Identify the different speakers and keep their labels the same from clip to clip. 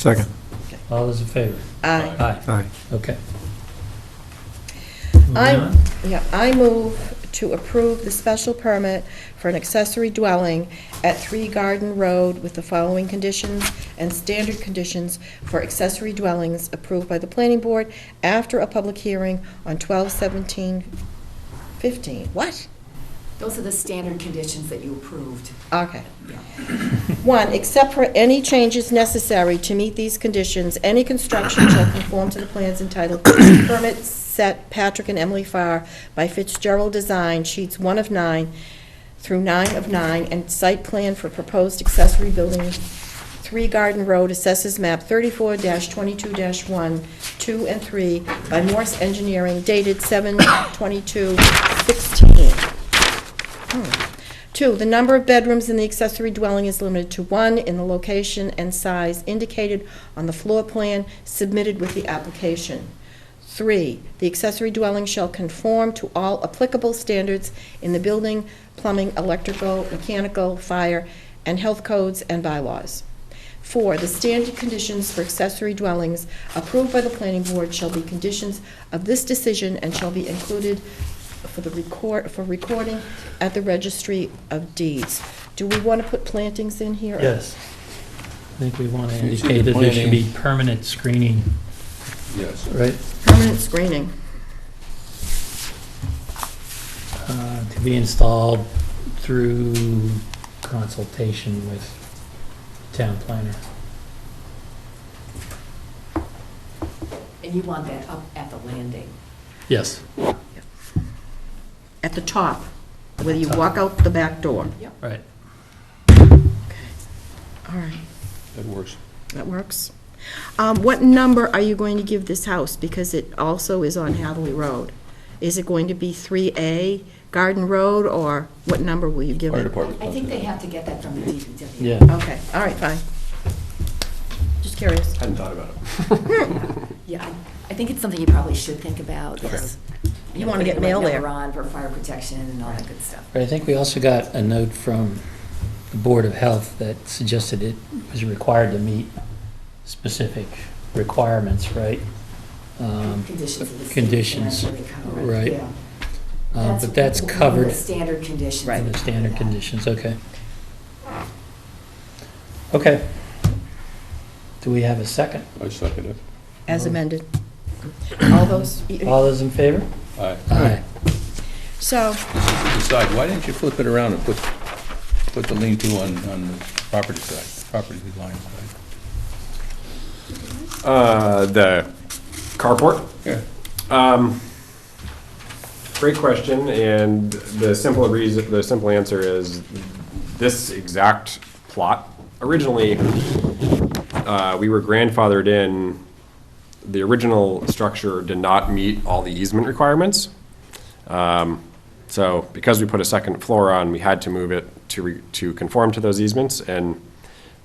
Speaker 1: Second.
Speaker 2: All those in favor?
Speaker 3: I,
Speaker 2: Aye,
Speaker 1: Aye.
Speaker 2: okay.
Speaker 3: I-
Speaker 2: Moving on.
Speaker 3: yeah, I move to approve the special permit for an accessory dwelling at Three Garden Road with the following conditions and standard conditions for accessory dwellings approved by the planning board after a public hearing on 12/17/15. What?
Speaker 4: Those are the standard conditions that you approved.
Speaker 3: Okay. One, except for any changes necessary to meet these conditions, any construction shall conform to the plans entitled Permit Set Patrick and Emily Farr by Fitzgerald Design, sheets one of nine through nine of nine, and site plan for proposed accessory building, Three Garden Road, assesses map thirty-four twenty-two one, two and three, by Morse Engineering, dated seven twenty-two sixteen. Two, the number of bedrooms in the accessory dwelling is limited to one in the location and size indicated on the floor plan submitted with the application. Three, the accessory dwelling shall conform to all applicable standards in the building, plumbing, electrical, mechanical, fire, and health codes and bylaws. Four, the standard conditions for accessory dwellings approved by the planning board shall be conditions of this decision and shall be included for the record, for recording at the registry of deeds. Do we want to put plantings in here?
Speaker 2: Yes. I think we want to
Speaker 5: You see the
Speaker 2: indicate that there should be
Speaker 5: planning.
Speaker 2: permanent screening,
Speaker 5: Yes.
Speaker 2: right?
Speaker 3: Permanent screening.
Speaker 2: uh, To be installed through consultation with town planner.
Speaker 4: And you want that up at the landing.
Speaker 2: Yes,
Speaker 3: At the top, whether you walk out the back door.
Speaker 2: right.
Speaker 3: All right,
Speaker 5: That works.
Speaker 3: that works. Um, What number are you going to give this house? Because it also is on Hathaway Road. Is it going to be 3A Garden Road, or what number will you give
Speaker 5: Fire
Speaker 3: it?
Speaker 5: department.
Speaker 4: I think they have to get that from the DPW.
Speaker 2: Yeah,
Speaker 3: Okay, all right, fine. Just curious.
Speaker 5: Hadn't thought about it.
Speaker 4: Yeah, I- I think it's something you probably should think about.
Speaker 3: Yes.
Speaker 4: You
Speaker 3: You
Speaker 4: know,
Speaker 3: wanna get
Speaker 4: putting the right
Speaker 3: mail there.
Speaker 4: number on for fire protection and all that good stuff.
Speaker 2: But I think we also got a note from the Board of Health that suggested it was required to meet specific requirements, right? Um,
Speaker 4: Conditions of the. state
Speaker 2: Conditions,
Speaker 4: and everything covered,
Speaker 2: right.
Speaker 4: yeah.
Speaker 2: uh, But that's
Speaker 4: one of
Speaker 2: covered
Speaker 4: the Standard conditions.
Speaker 2: in the standard
Speaker 4: Yeah.
Speaker 2: conditions, okay. Okay. Do we have a second?
Speaker 5: I second it.
Speaker 3: As amended. All those,
Speaker 2: All those in favor?
Speaker 5: Aye.
Speaker 2: Aye.
Speaker 3: so,
Speaker 5: Decide, why didn't you flip it around and put, put the lean-to on, on the property side, property line side?
Speaker 6: Uh, the carport?
Speaker 5: Yeah.
Speaker 6: Um, Great question, and the simple reason, the simple answer is this exact plot. Originally, uh, we were grandfathered in, the original structure did not meet all the easement requirements. Um, So because we put a second floor on, we had to move it to, re- to conform to those easements, and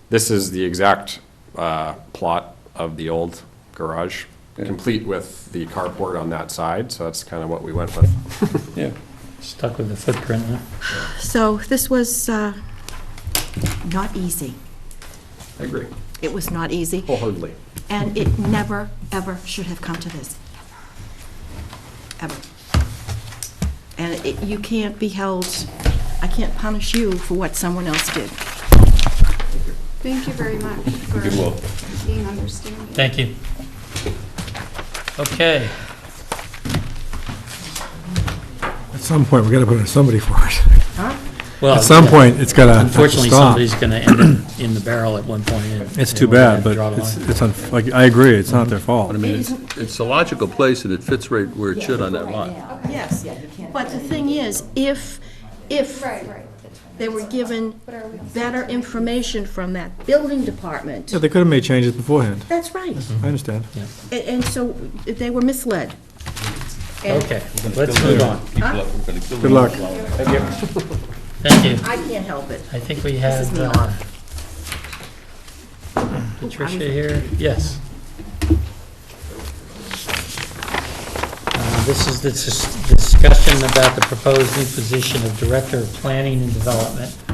Speaker 6: this is the exact uh, plot of the old garage, complete with the carport on that side, so that's kind of what we went with.
Speaker 5: Yeah.
Speaker 2: Stuck with the footprint, huh?
Speaker 3: so this was uh, not easy.
Speaker 6: I agree.
Speaker 3: It was not easy,
Speaker 6: Wholeheartedly.
Speaker 3: and it never, ever should have come to this. Ever. And it- you can't be held, I can't punish you for what someone else did.
Speaker 7: Thank you very much for
Speaker 5: You will.
Speaker 7: being understanding.
Speaker 2: Thank you. Okay,
Speaker 1: At some point, we gotta put in somebody for it.
Speaker 2: well.
Speaker 1: At some point, it's gotta stop.
Speaker 2: Unfortunately, somebody's going to end up in the barrel at one point. and-
Speaker 1: It's
Speaker 2: and
Speaker 1: too
Speaker 2: we're gonna
Speaker 1: bad, but
Speaker 2: draw the
Speaker 1: it's,
Speaker 2: line.
Speaker 1: it's, unf- like, I agree, it's not their fault.
Speaker 5: But I mean, it's, it's a logical place and it fits right where it should on that
Speaker 4: Right
Speaker 5: line.
Speaker 4: now.
Speaker 3: Yes.
Speaker 4: Yeah, you can't.
Speaker 3: But the thing is, if, if
Speaker 7: Right, right.
Speaker 3: they were given better information from that building department,
Speaker 1: Yeah, they Mm-hmm. could have made changes beforehand.
Speaker 3: that's right.
Speaker 1: I understand.
Speaker 3: And- And so they were misled. And
Speaker 2: Okay, let's move on.
Speaker 5: People up, we're gonna kill
Speaker 1: Good luck.
Speaker 5: them.
Speaker 2: Thank you.
Speaker 3: I can't help it.
Speaker 2: I think we
Speaker 3: This
Speaker 2: have
Speaker 3: is me
Speaker 2: uh, Patricia here. Yes. Uh, This is the dis- discussion about the proposed new position of Director of Planning and Development